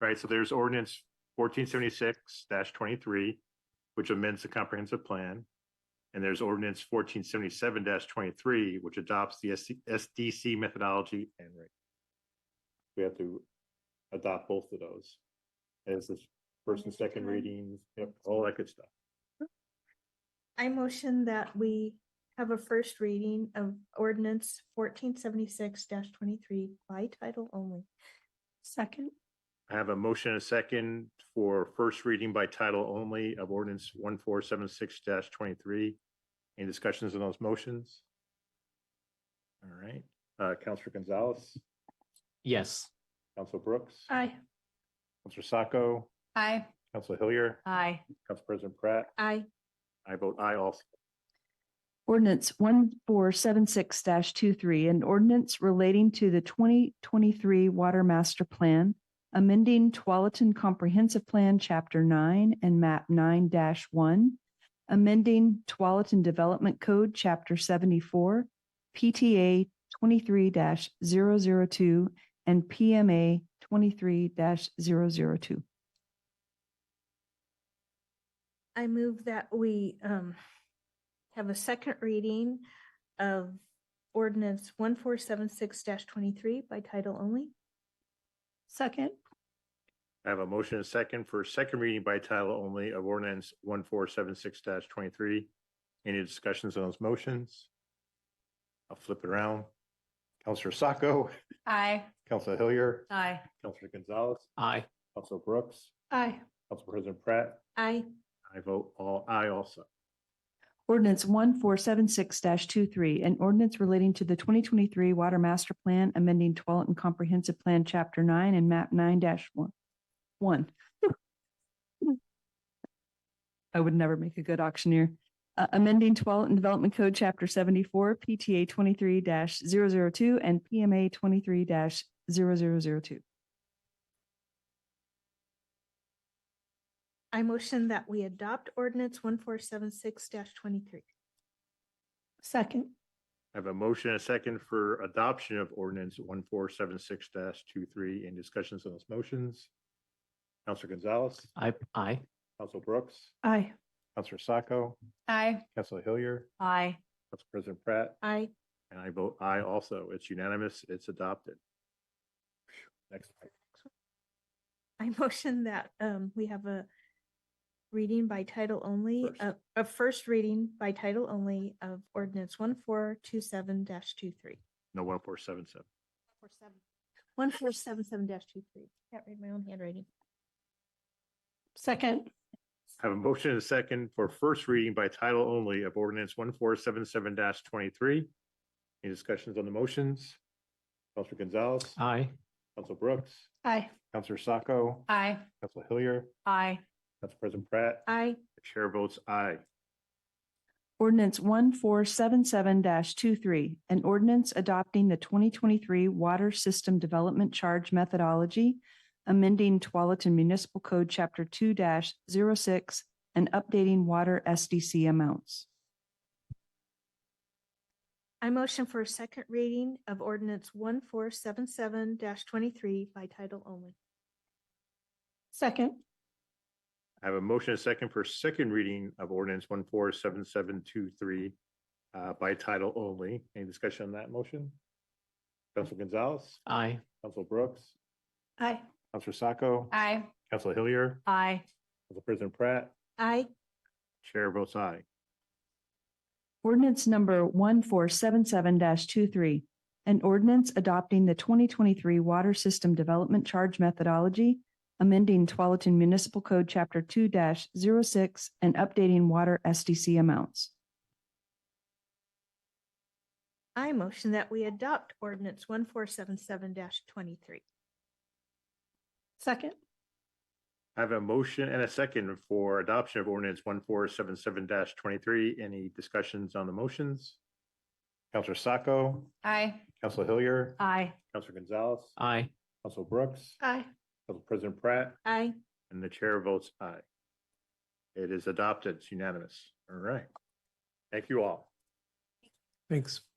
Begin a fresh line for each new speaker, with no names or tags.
right? So there's ordinance fourteen seventy-six twenty-three, which amends the comprehensive plan. And there's ordinance fourteen seventy-seven twenty-three, which adopts the SC SDC methodology and rate. We have to adopt both of those. As this first and second
Okay.
readings, yep, all that good stuff.
I motion that we have a first reading of ordinance fourteen seventy-six twenty-three by title only.
Second,
I have a motion and a second for first reading by title only of ordinance one four seven six twenty-three. Any discussions on those motions? All right, uh, Counselor Gonzalez,
Yes.
Counselor Brooks,
aye.
Counselor Sacco,
Aye.
Counselor Hillier,
Aye.
Council President Pratt,
I,
I vote aye also.
Ordinance one four seven six 23 an ordinance relating to the twenty twenty-three Water Master Plan, amending Tualatin Comprehensive Plan, Chapter nine and map nine one, amending Tualatin Development Code, Chapter seventy-four, PTA twenty-three 2 and PMA twenty-three 2
I move that we, um, have a second reading of ordinance one four seven six twenty-three by title only.
Second,
I have a motion and a second for second reading by title only of ordinance one four seven six twenty-three. Any discussions on those motions? I'll flip it around. Counselor Sacco.
Aye.
Counselor Hillier,
Aye.
Counselor Gonzalez,
Aye.
Counselor Brooks,
aye.
Council President Pratt,
I,
I vote all aye also.
Ordinance one four seven six 23 an ordinance relating to the twenty twenty-three Water Master Plan, amending Tualatin Comprehensive Plan, Chapter nine and map nine one. One. I would never make a good auctioneer. Uh, amending Tualatin Development Code, Chapter seventy-four, PTA twenty-three 2 and PMA twenty-three 2
I motion that we adopt ordinance one four seven six twenty-three.
Second,
I have a motion and a second for adoption of ordinance one four seven six 23 and discussions on those motions. Counselor Gonzalez,
I, aye.
Counselor Brooks,
aye.
Counselor Sacco,
Aye.
Counselor Hillier,
Aye.
Council President Pratt,
I,
and I vote aye also. It's unanimous. It's adopted. Next.
I motion that um we have a reading by title only,
First.
uh, a first reading by title only of ordinance one four two seven dash two three.
No, one four seven seven.
One four seven seven dash two three. Can't read my own handwriting.
Second,
I Have a motion and a second for first reading by title only of ordinance one four seven seven twenty-three. Any discussions on the motions? Counselor Gonzalez,
Aye.
Counselor Brooks,
aye.
Counselor Sacco,
Aye.
Counselor Hillier,
Aye.
Council President Pratt.
I,
The Chair votes aye.
Ordinance one four seven seven 23 an ordinance adopting the twenty twenty-three Water System Development Charge Methodology, amending Tualatin Municipal Code, Chapter two 6 and updating water SDC amounts.
I motion for a second reading of ordinance one four seven seven dash twenty-three by title only.
Second,
I have a motion and a second for second reading of ordinance one four seven seven two three uh, by title only. Any discussion on that motion? Counselor Gonzalez,
Aye.
Counselor Brooks,
aye.
Counselor Sacco,
Aye.
Counselor Hillier,
Aye.
Council President Pratt.
I,
Chair votes aye.
Ordinance number one four seven seven 23 an ordinance adopting the twenty twenty-three Water System Development Charge Methodology, amending Tualatin Municipal Code, Chapter two 6 and updating water SDC amounts.
I motion that we adopt ordinance one four seven seven dash twenty-three.
Second,
I have a motion and a second for adoption of ordinance one four seven seven twenty-three. Any discussions on the motions? Counselor Sacco,
Aye.
Counselor Hillier,
Aye.
Counselor Gonzalez,
Aye.
Counselor Brooks,
aye.
Council President Pratt,
I,
and the chair votes aye. It is adopted. It's unanimous. All right. Thank you all.
Thanks.